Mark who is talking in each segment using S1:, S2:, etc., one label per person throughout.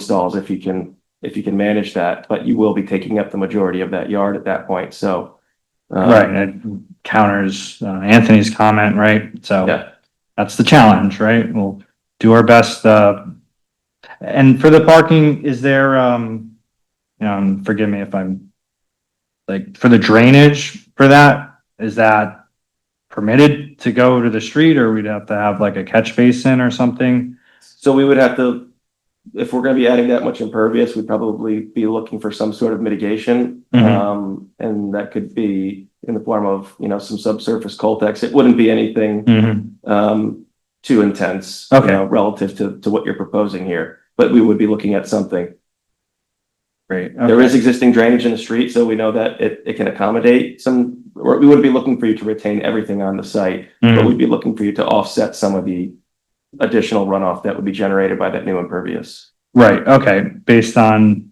S1: installs if you can, if you can manage that, but you will be taking up the majority of that yard at that point, so. uh,
S2: Right, and it counters uh, Anthony's comment, right? So
S1: Yeah,
S2: that's the challenge, right? We'll do our best, uh, and for the parking, is there, um, um, forgive me if I'm, like, for the drainage for that, is that permitted to go to the street or we'd have to have like a catch basin or something?
S1: so we would have to, if we're gonna be adding that much impervious, we'd probably be looking for some sort of mitigation.
S2: Mhm.
S1: Um, and that could be in the form of, you know, some subsurface coltex. It wouldn't be anything
S2: Mm-hmm,
S1: um, too intense. you
S2: Okay.
S1: know, Relative to, to what you're proposing here, but we would be looking at something.
S2: great.
S1: There is existing drainage in the street, so we know that it, it can accommodate some, or we wouldn't be looking for you to retain everything on the site, but
S2: Mhm,
S1: we'd be looking for you to offset some of the additional runoff that would be generated by that new impervious.
S2: Right, okay, based on,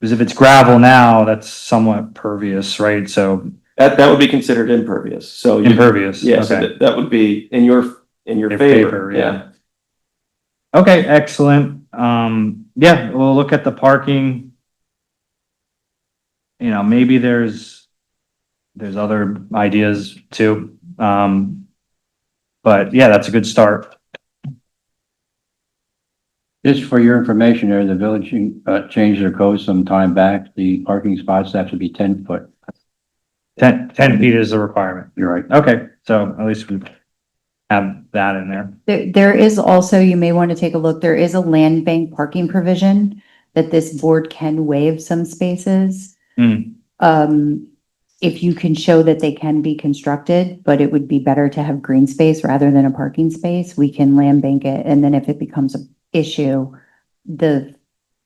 S2: because if it's gravel now, that's somewhat pervious, right? So
S1: That, that would be considered impervious, so. you-
S2: impervious,
S1: Yeah, so
S2: okay.
S1: that, that would be in your, in your
S2: Your favor,
S1: favor,
S2: yeah.
S1: yeah.
S2: Okay, excellent. Um, yeah, we'll look at the parking. You know, maybe there's, there's other ideas too. Um, but yeah, that's a good start.
S3: Just for your information there, the village uh, changed their code some time back. The parking spots have to be ten foot.
S2: Ten, ten feet is a requirement.
S3: You're right.
S2: Okay, so at least we have that in there.
S4: There, there is also, you may want to take a look, there is a land bank parking provision that this board can waive some spaces.
S2: Hmm.
S4: Um, if you can show that they can be constructed, but it would be better to have green space rather than a parking space, we can land bank it, and then if it becomes an issue, the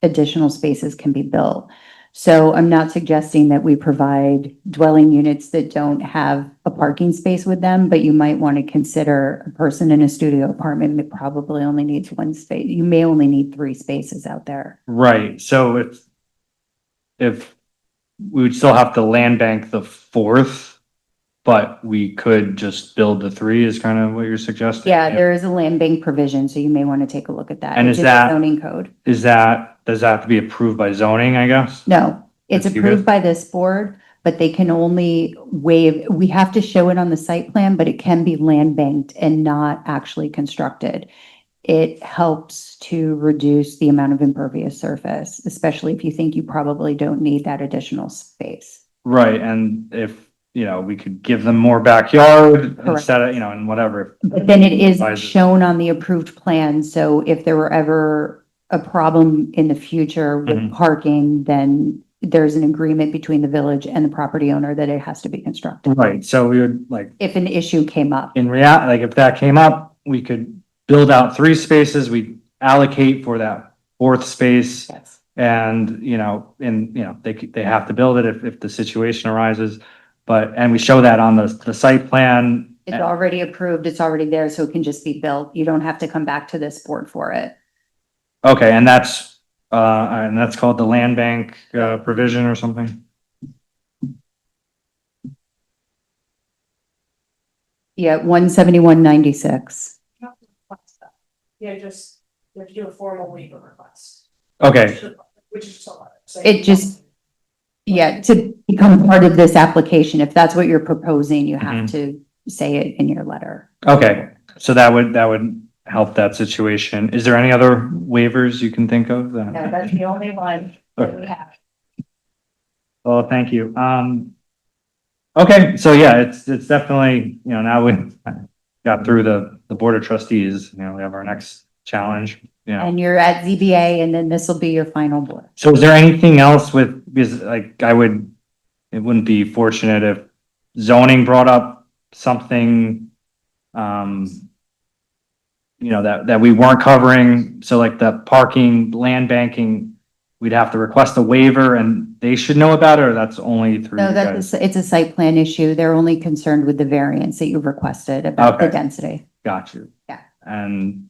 S4: additional spaces can be built. So I'm not suggesting that we provide dwelling units that don't have a parking space with them, but you might want to consider a person in a studio apartment that probably only needs one space. You may only need three spaces out there.
S2: Right, so if, if we would still have to land bank the fourth, but we could just build the three is kind of what you're suggesting?
S4: Yeah, there is a land bank provision, so you may want to take a look at that.
S2: And
S4: It's
S2: is
S4: in the
S2: that-
S4: Zoning code.
S2: Is that, does that have to be approved by zoning, I guess?
S4: No, it's
S2: That's you guys?
S4: approved by this board, but they can only waive, we have to show it on the site plan, but it can be land banked and not actually constructed. It helps to reduce the amount of impervious surface, especially if you think you probably don't need that additional space.
S2: Right, and if, you know, we could give them more backyard
S4: Correct.
S2: instead of, you know, and whatever.
S4: But then it is
S2: Advisors.
S4: shown on the approved plan, so if there were ever a problem in the future with
S2: Mhm.
S4: parking, then there's an agreement between the village and the property owner that it has to be constructed.
S2: Right, so we would like,
S4: If an issue came up.
S2: in real, like if that came up, we could build out three spaces, we allocate for that fourth space.
S4: Yes.
S2: And, you know, and, you know, they, c- they have to build it if, if the situation arises. But, and we show that on the, the site plan.
S4: It's already approved, it's already there, so it can just be built. You don't have to come back to this board for it.
S2: Okay, and that's, uh, and that's called the land bank, uh, provision or something?
S4: Yeah, one seventy-one ninety-six.
S5: not to request that. Yeah, just, you have to do a formal waiver request.
S2: Okay,
S5: Which is just a lot. So
S4: It just- Yeah, to become part of this application, if that's what you're proposing, you have
S2: Mm-hmm.
S4: to say it in your letter.
S2: okay. So that would, that would help that situation. Is there any other waivers you can think of? that-
S5: No, that's the only one that we have.
S2: Well, thank you. Um, okay, so yeah, it's, it's definitely, you know, now we got through the, the board of trustees, you know, we have our next challenge, you know.
S4: And you're at ZBA and then this will be your final board.
S2: So is there anything else with, because like I would, it wouldn't be fortunate if zoning brought up something, um, you know, that, that we weren't covering. So like the parking, land banking, we'd have to request a waiver and they should know about it or that's only through
S4: No,
S2: you guys?
S4: that's, it's a site plan issue. They're only concerned with the variance that you requested about the
S2: Okay.
S4: density.
S2: Got you.
S4: Yeah.
S2: And,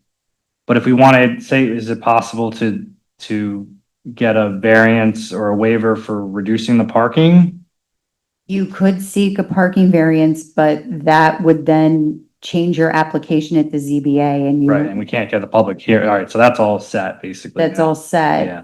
S2: but if we wanted, say, is it possible to, to get a variance or a waiver for reducing the parking?
S4: You could seek a parking variance, but that would then change your application at the ZBA and
S2: Right,
S4: you,
S2: and we can't get the public here. All right, so that's all set, basically.
S4: that's all set.
S2: Yeah,